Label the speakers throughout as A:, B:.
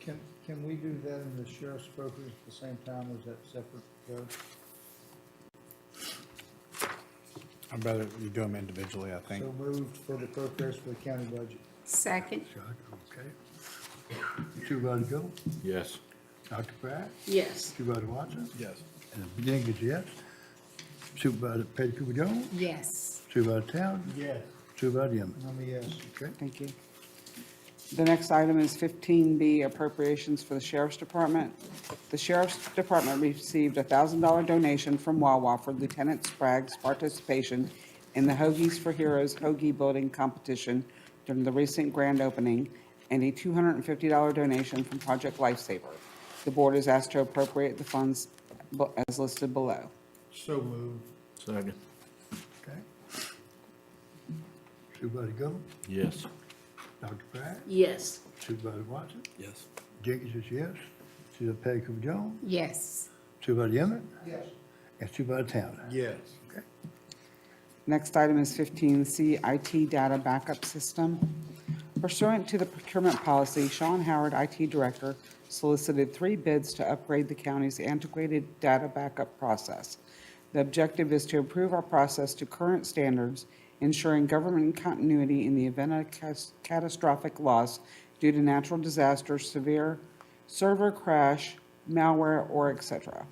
A: Can, can we do that in the sheriff's brokerage at the same time, or is that separate, Joe?
B: I'd rather you do them individually, I think.
A: So moved for the progress for the county budget.
C: Second,
D: Chuck, okay. Supervisor Gold,
E: Yes.
D: Dr. Pratt,
C: yes.
D: Supervisor Watson,
B: Yes.
D: and Jenkins, yes. Supervisor Petty Cooper Jones,
C: Yes.
D: Supervisor Towns,
A: Yes.
D: Supervisor Yemmons.
A: I'm a yes.
D: Okay,
F: Thank you. The next item is 15B appropriations for the Sheriff's Department. The Sheriff's Department received a $1,000 donation from Wawa for Lieutenant Sprague's participation in the Hoagies for Heroes Hoagie Building Competition during the recent grand opening, and a $250 donation from Project Lifesaver. The board is asked to appropriate the funds bu- as listed below.
A: So moved.
E: Second.
D: okay. Supervisor Gold,
E: Yes.
D: Dr. Pratt,
C: Yes.
D: Supervisor Watson,
E: Yes.
D: Jenkins is yes. Supervisor Petty Cooper Jones,
C: Yes.
D: Supervisor Yemmons,
A: Yes.
D: and Supervisor Towns.
A: Yes.
D: Okay.
F: Next item is 15C, IT Data Backup System. Pursuant to the procurement policy, Sean Howard, IT Director, solicited three bids to upgrade the county's antiquated data backup process. The objective is to improve our process to current standards, ensuring government continuity in the event of cas- catastrophic loss due to natural disaster, severe server crash, malware, or et cetera.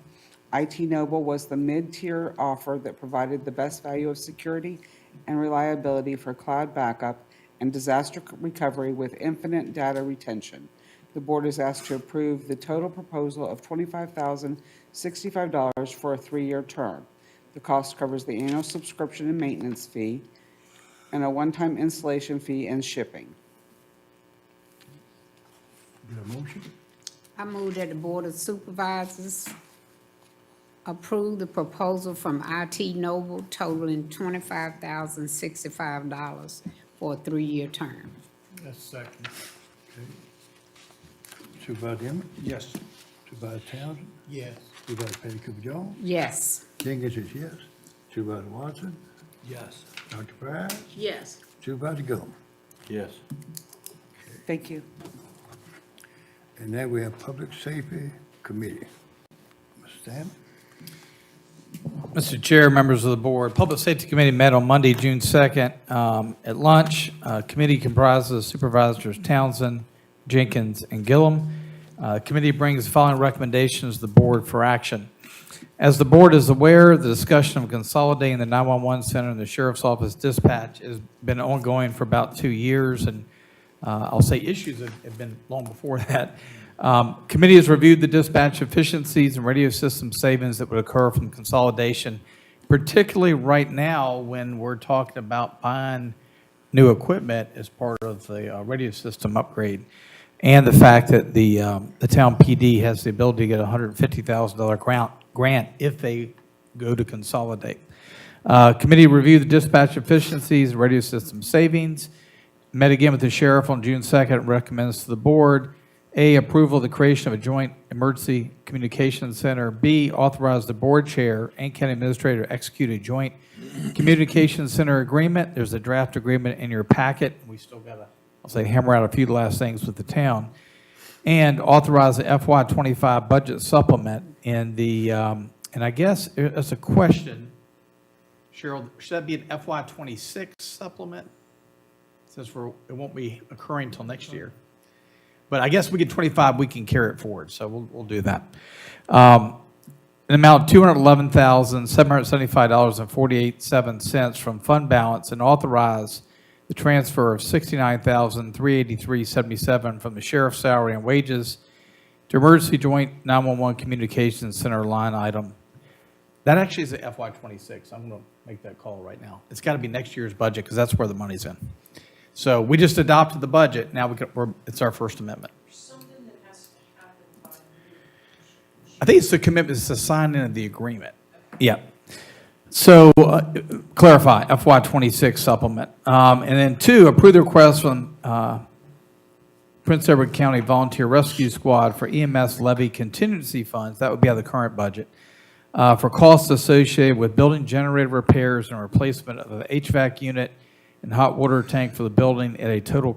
F: IT Noble was the mid-tier offer that provided the best value of security and reliability for cloud backup and disaster c- recovery with infinite data retention. The board is asked to approve the total proposal of $25,065 for a three-year term. The cost covers the annual subscription and maintenance fee, and a one-time installation fee and shipping.
D: Get a motion?
C: I move that the Board of Supervisors approve the proposal from IT Noble totaling twenty-five thousand sixty-five dollars for a three-year term.
A: Yes, second.
D: Supervisor Yemmons,
A: Yes.
D: Supervisor Towns,
A: Yes.
D: Supervisor Petty Cooper Jones,
C: Yes.
D: Jenkins is yes. Supervisor Watson,
A: Yes.
D: Dr. Pratt,
C: Yes.
D: Supervisor Gold.
E: Yes.
F: Thank you.
D: And now we have Public Safety Committee. Mr. Stanley?
G: Mr. Chair, members of the board, Public Safety Committee met on Monday, June 2nd um, at lunch. Uh, Committee comprises Supervisors Townsend, Jenkins, and Gillum. Uh, Committee brings the following recommendations to the board for action. As the board is aware, the discussion of consolidating the 911 center and the sheriff's office dispatch has been ongoing for about two years, and uh, I'll say issues have have been long before that. Um, Committee has reviewed the dispatch efficiencies and radio system savings that would occur from consolidation, particularly right now when we're talking about buying new equipment as part of the uh, radio system upgrade, and the fact that the, um, the town PD has the ability to get a $150,000 grant, grant if they go to consolidate. Uh, Committee reviewed the dispatch efficiencies, radio system savings, met again with the sheriff on June 2nd, recommends to the board, A, approval of the creation of a joint emergency communication center, B, authorize the board chair and county administrator to execute a joint communication center agreement. There's a draft agreement in your packet. We still got to, I'll say, hammer out a few last things with the town. And authorize the FY25 budget supplement in the, um, and I guess, uh, that's a question, Cheryl, should that be an FY26 supplement? since we're, it won't be occurring till next year. But I guess we get 25, we can carry it forward, so we'll, we'll do that. Um, An amount of $211,775.48 from fund balance and authorize the transfer of $69,383.77 from the sheriff's salary and wages to emergency joint 911 communications center line item that actually is a FY '26. I'm going to make that call right now. It's got to be next year's budget because that's where the money's in. So we just adopted the budget. Now we can, we're, it's our First Amendment. I think it's the commitment, it's the signing of the agreement. Yeah. So uh, clarify FY '26 supplement. Um, And then two, approve the request from uh, Prince Edward County Volunteer Rescue Squad for EMS levy contingency funds. That would be out of the current budget uh, for costs associated with building generator repairs and replacement of an HVAC unit and hot water tank for the building at a total